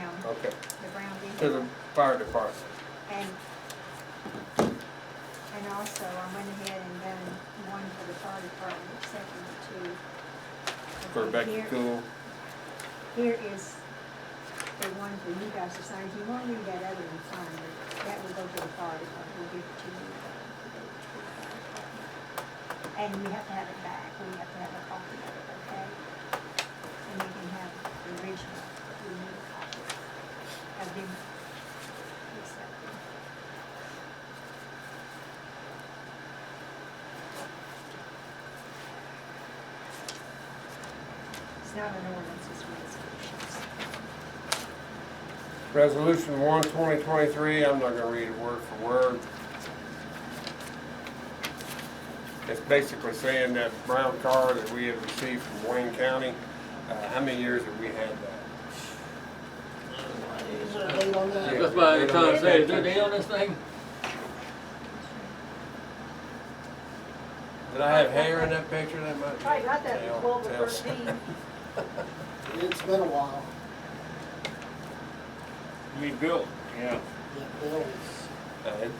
okay, the brown to vehicle. the fire department. And, and also, I went ahead and done one for the fire department, except for the two. For Okay, back here- to school, Here is the one for you guys to sign, if you want to read that other one, fine, but that will go to the fire department, we'll give it to you. And we have to have it back, we have to have a copy of it, okay? And you can have the original, if you need a copy. I've been accepted. It's not an ordinance, it's resolutions. resolution one twenty twenty-three, I'm not gonna read it word for word. It's basically saying that brown car that we have received from Wayne County, uh, how many years have we had that? Is there a date on that? That's why I trying to say, is there a deal on this thing? Did I have hair in that picture that much? Probably not that Hell, twelve or hell. thirteen. It's been a while. We built, yeah. Yeah, Bill's, Uh, it-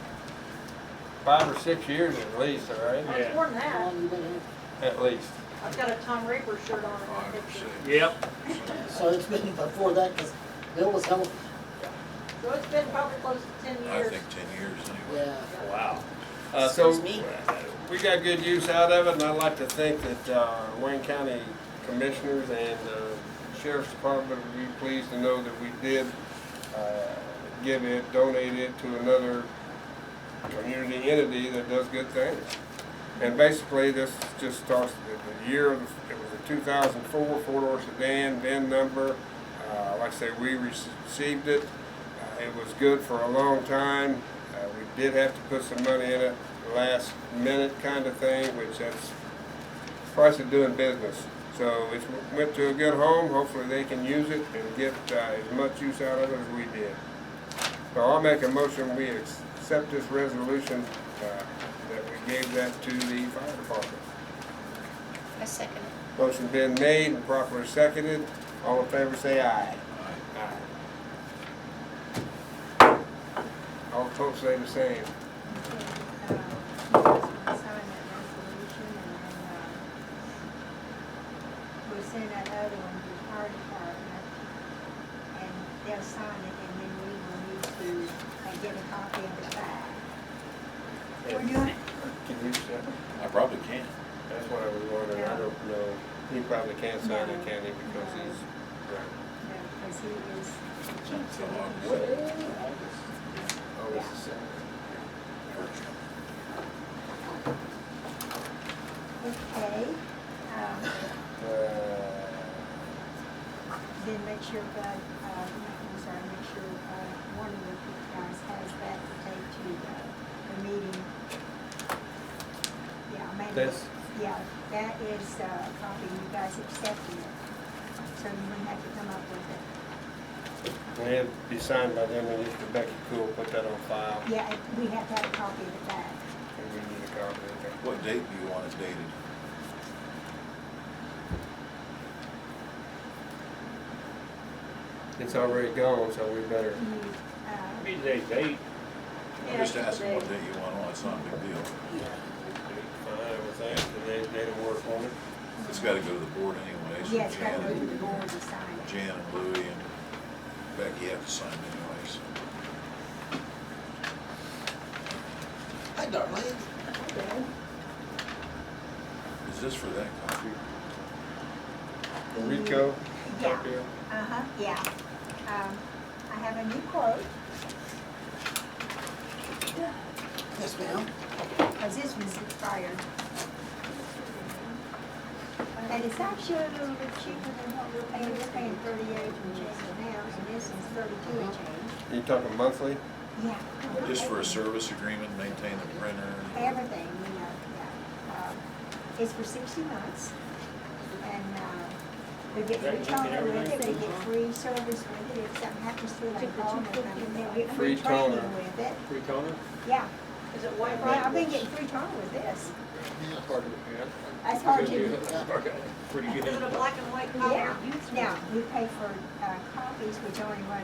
Five or six years at least, all right, It's more than how that. long you been here? at least. I've got a Tom Raper shirt on in that picture. Yep. So it's been before that, because Bill was held, So it's been probably close to ten I years. think ten years anyway. yeah. Wow. Uh, so, Excuse me. we got good use out of it, and I'd like to think that, uh, Wayne County Commissioners and, uh, Sheriff's Department would be pleased to know that we did, uh, give it, donate it to another community entity that does good things. And basically, this just starts, the, the year, of- it was a two thousand four, four-door sedan, VIN number. Uh, like I say, we received it. Uh, It was good for a long time. Uh, we did have to put some money in it, last minute kind of thing, which that's price of doing business. So it went to a good home. Hopefully, they can use it and get uh, as much use out of it as we did. So I'll make a motion, we accept this resolution, uh, that we gave that to the fire department. I second it. Motion been made and properly seconded, all in favor say aye. Aye. All folks say the same. Okay, uh, you guys can sign that resolution and then, uh, we'll send that other one to the fire department. And they'll sign it and then we will need to uh, get a copy of it back. We're doing it. Can you accept it? I probably can. That's what I was wondering, I don't know, he probably can't sign it, can he, because he's, right, Because he is. It's until August. Well, always Oh, the same. Okay, um, Uh, then make sure that, uh, I'm sorry, make sure, uh, one of the guys has that to take to the, the meeting. Yeah, maybe. This? Yeah, that is, uh, a copy, you guys accepting it, so you wouldn't have to come up with it. And it'd be signed by them, and if Rebecca Cool put that on file, and Yeah, it- we have to have a copy of it back. we need a copy of that. What date do you want it dated? It's already gone, so we better, You, uh, Maybe they date. I'm Yeah, just it's asking what today. date you want on, it's not a big deal. find everything, and they, they don't work on it. It's gotta go to the board anyway, yeah, so it's got to go to the Jan, board to sign it. Jan and Louie and Becky have to sign anyway, so. Hi, Darlene. Is this for that copy? Rico? Yeah. Tokyo? Uh-huh, yeah. Um, I have a new quote, Yes, ma'am. because this one's expired. And it's actually a little bit cheaper than what we're paying, we're paying thirty-eight and change now, and this is thirty-two and change. You talking monthly? Yeah. Just for a service agreement, maintain the printer? Everything, you know, yeah. Um, It's for sixty months, and, uh, we get Right, free you get toner with everything? it, we get free service with it, if something happens to it, like, oh, and we get Free free toner. training with it, Free toner? yeah. Is it white Well, I've been right? getting free toner with this. Yeah. That's hard to, Pretty Is it a black and white collar? yeah. Now, we pay for uh, copies, which only run